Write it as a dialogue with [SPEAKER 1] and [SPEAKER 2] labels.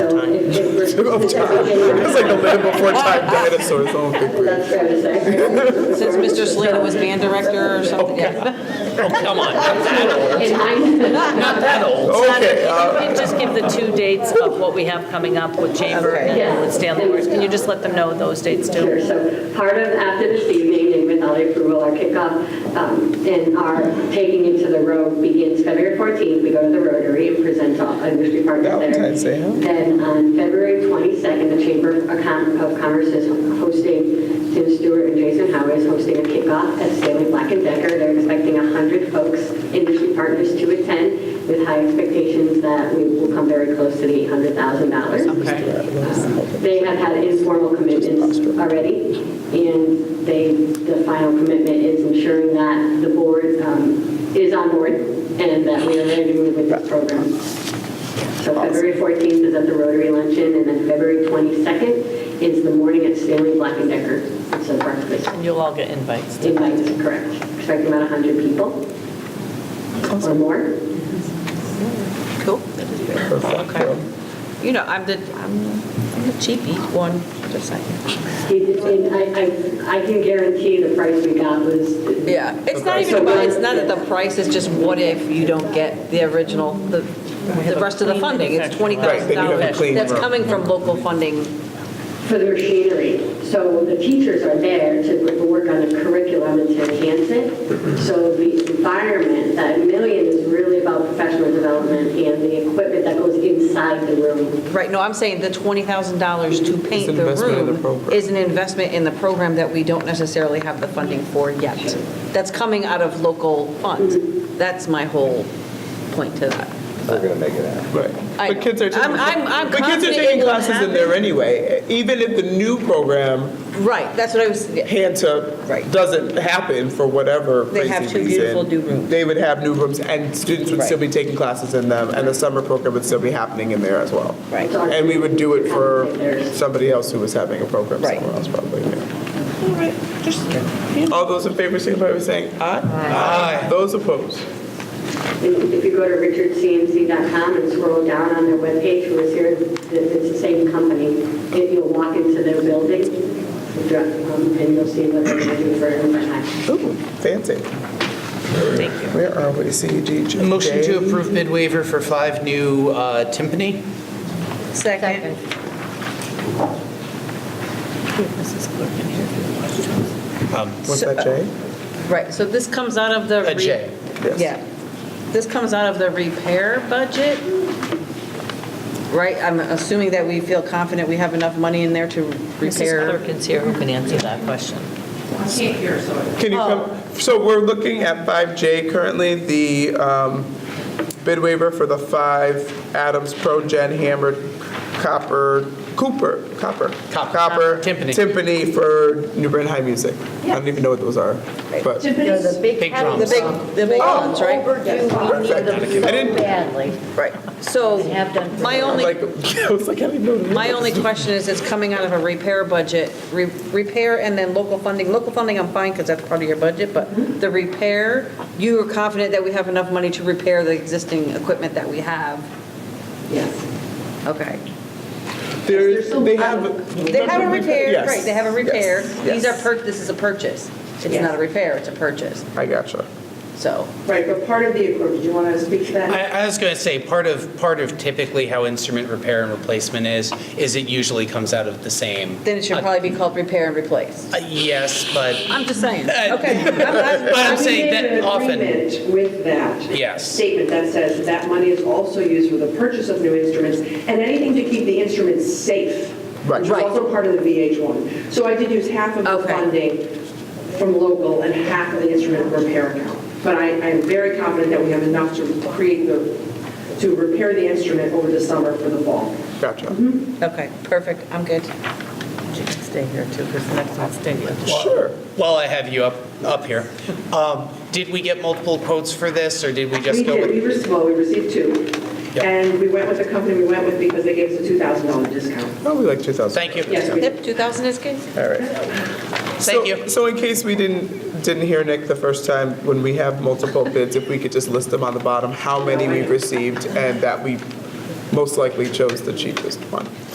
[SPEAKER 1] took off time. It's like the land before time dinosaurs. Oh, big brain.
[SPEAKER 2] That's fair to say.
[SPEAKER 3] Since Mr. Slater was band director or something.
[SPEAKER 4] Oh, come on, not that old,
[SPEAKER 2] In hindsight,
[SPEAKER 4] not that old.
[SPEAKER 1] Okay, uh,
[SPEAKER 5] Can you just give the two dates of what we have coming up with Chamber and with Stanley Works? Can you just let them know those dates too?
[SPEAKER 2] sure. So part of, after this evening, and with all the approval, our kickoff um, and our taking into the road begins February 14th. We go to the Rotary and present to all industry partners there.
[SPEAKER 1] Valentine's Day, huh?
[SPEAKER 2] Then on February 22nd, the Chamber of Com- of Commerce is hosting, Tim Stewart and Jason Howard is hosting a kickoff at Stanley Black and Decker. They're expecting 100 folks, industry partners, to attend with high expectations that we will come very close to the $800,000. Uh, They have had informal commitments already, and they, the final commitment is ensuring that the board um, is on board and that we are ready to move with this program. So February 14th is at the Rotary Luncheon, and then February 22nd is the morning at Stanley Black and Decker. It's a breakfast.
[SPEAKER 5] You'll all get invites.
[SPEAKER 2] Invite is correct. Expect about 100 people or more.
[SPEAKER 3] Cool. Okay. You know, I'm the, I'm I'm the cheapie one, just saying.
[SPEAKER 2] He did- and I I- I can guarantee the price we got was.
[SPEAKER 3] Yeah, it's not even about, it's not that the price, it's just what if you don't get the original, the, the rest of the funding? It's
[SPEAKER 1] Right, then you have a
[SPEAKER 3] $20,000
[SPEAKER 1] clean
[SPEAKER 3] that's
[SPEAKER 1] room.
[SPEAKER 3] coming from local funding.
[SPEAKER 2] for the machinery. So the teachers are there to w- work on the curriculum and to enhance it. So the environment, that million is really about professional development and the equipment that goes inside the room.
[SPEAKER 3] Right, no, I'm saying the $20,000 to
[SPEAKER 1] It's
[SPEAKER 3] paint
[SPEAKER 1] an
[SPEAKER 3] the
[SPEAKER 1] investment in the
[SPEAKER 3] room
[SPEAKER 1] program.
[SPEAKER 3] is an investment in the program that we don't necessarily have the funding for yet. That's coming out of local funds. That's my whole point to that.
[SPEAKER 6] We're going to make it happen.
[SPEAKER 1] Right.
[SPEAKER 3] I
[SPEAKER 1] But
[SPEAKER 3] know.
[SPEAKER 1] kids are taking,
[SPEAKER 3] I'm- I'm- I'm
[SPEAKER 1] but kids are
[SPEAKER 3] confident
[SPEAKER 1] taking
[SPEAKER 3] it will
[SPEAKER 1] classes in there
[SPEAKER 3] happen.
[SPEAKER 1] anyway. Even if the new program,
[SPEAKER 3] Right, that's what I was,
[SPEAKER 1] hand to,
[SPEAKER 3] Right.
[SPEAKER 1] doesn't happen for whatever
[SPEAKER 3] They have
[SPEAKER 1] crazy
[SPEAKER 3] two beautiful
[SPEAKER 1] reason,
[SPEAKER 3] new rooms.
[SPEAKER 1] They would have new rooms and students would
[SPEAKER 3] Right.
[SPEAKER 1] still be taking classes in them and the summer program would still be happening in there as well.
[SPEAKER 3] Right.
[SPEAKER 1] And we would do it for somebody else who was having a program
[SPEAKER 3] Right.
[SPEAKER 1] somewhere else probably. yeah. All those in favor, signify by saying aye. Aye. Those opposed?
[SPEAKER 2] And If you go to richardcmc.com and scroll down on their webpage, who is here, th- it's the same company. If you'll walk into their building, the dr- um, and you'll see what they're doing for everyone.
[SPEAKER 1] Ooh, fancy. Where are we, CDG?
[SPEAKER 4] Motion to approve bid waiver for five new uh, timpani.
[SPEAKER 3] second.
[SPEAKER 1] What's that, Jay?
[SPEAKER 3] Right, so this comes out of the.
[SPEAKER 4] A
[SPEAKER 3] re-
[SPEAKER 4] J.
[SPEAKER 1] Yes.
[SPEAKER 3] Yeah. This comes out of the repair budget, right? I'm assuming that we feel confident we have enough money in there to
[SPEAKER 5] Mrs.
[SPEAKER 3] repair.
[SPEAKER 5] Clerk is here who can answer that question.
[SPEAKER 1] Can you
[SPEAKER 3] Oh.
[SPEAKER 1] come, so we're looking at 5J currently, the um, bid waiver for the five Adams Pro Gen hammered copper, Cooper, copper.
[SPEAKER 4] Cop-
[SPEAKER 1] Copper.
[SPEAKER 4] timpani.
[SPEAKER 1] Timpani for New Bern High Music. I don't even know what those are, but.
[SPEAKER 7] The
[SPEAKER 4] Big
[SPEAKER 7] big
[SPEAKER 3] The
[SPEAKER 4] drums.
[SPEAKER 7] drums.
[SPEAKER 3] big, the big ones, right?
[SPEAKER 7] Overdue, we need
[SPEAKER 1] Oh. Perfect.
[SPEAKER 7] them so
[SPEAKER 1] I didn't-
[SPEAKER 7] badly.
[SPEAKER 3] Right. So
[SPEAKER 7] Have done for
[SPEAKER 3] my
[SPEAKER 7] a while.
[SPEAKER 3] only,
[SPEAKER 1] Like, I was like, I don't even know. what it
[SPEAKER 3] my
[SPEAKER 1] is.
[SPEAKER 3] only question is, it's coming out of a repair budget, Re- repair and then local funding. Local funding, I'm fine because that's part of your budget, but the repair, you are confident that we have enough money to repair the existing equipment that we have?
[SPEAKER 2] Yes.
[SPEAKER 3] Okay.
[SPEAKER 1] There's, they have.
[SPEAKER 3] They have a repair,
[SPEAKER 1] Yes.
[SPEAKER 3] right, they have a repair.
[SPEAKER 1] Yes.
[SPEAKER 3] These are,
[SPEAKER 1] Yes.
[SPEAKER 3] pur- this is a purchase. It's not a repair, it's a purchase,
[SPEAKER 1] I gotcha.
[SPEAKER 3] so.
[SPEAKER 8] Right, but part of the, or do you want to speak to that?
[SPEAKER 4] I, I was going to say, part of, part of typically how instrument repair and replacement is, is it usually comes out of the same.
[SPEAKER 3] Then it should probably be called repair and replace.
[SPEAKER 4] Uh, Yes, but,
[SPEAKER 3] I'm just saying,
[SPEAKER 4] Uh,
[SPEAKER 3] okay. I'm-
[SPEAKER 4] but
[SPEAKER 3] I'm-
[SPEAKER 4] I'm saying that
[SPEAKER 8] We made
[SPEAKER 4] often,
[SPEAKER 8] an agreement with that.
[SPEAKER 4] Yes.
[SPEAKER 8] Statement that says that money is also used for the purchase of new instruments and anything to keep the instruments safe.
[SPEAKER 1] Right.
[SPEAKER 8] Which is also part of the VH1. So I did use half of the
[SPEAKER 3] Okay.
[SPEAKER 8] funding from local and half of the instrument repair account. But I, I am very confident that we have enough to create the, to repair the instrument over the summer for the fall.
[SPEAKER 1] Gotcha.
[SPEAKER 3] Mm-hmm. Okay, perfect, I'm good.
[SPEAKER 5] She can stay here too, because the next one's staying here.
[SPEAKER 1] Sure.
[SPEAKER 4] while I have you up, up here, um, did we get multiple quotes for this, or did we just
[SPEAKER 8] We
[SPEAKER 4] go
[SPEAKER 8] did, we
[SPEAKER 4] with?
[SPEAKER 8] received, well, we received two.
[SPEAKER 4] Yep.
[SPEAKER 8] And we went with the company we went with because they gave us a $2,000 discount.
[SPEAKER 1] Probably like 2,000.
[SPEAKER 4] Thank you.
[SPEAKER 8] Yes, we did.
[SPEAKER 3] Yep, 2,000 is good?
[SPEAKER 1] All right.
[SPEAKER 4] Thank
[SPEAKER 1] So-
[SPEAKER 4] you.
[SPEAKER 1] So in case we didn't, didn't hear Nick the first time, when we have multiple bids, if we could just list them on the bottom, how many we've received and that we most likely chose the cheapest one.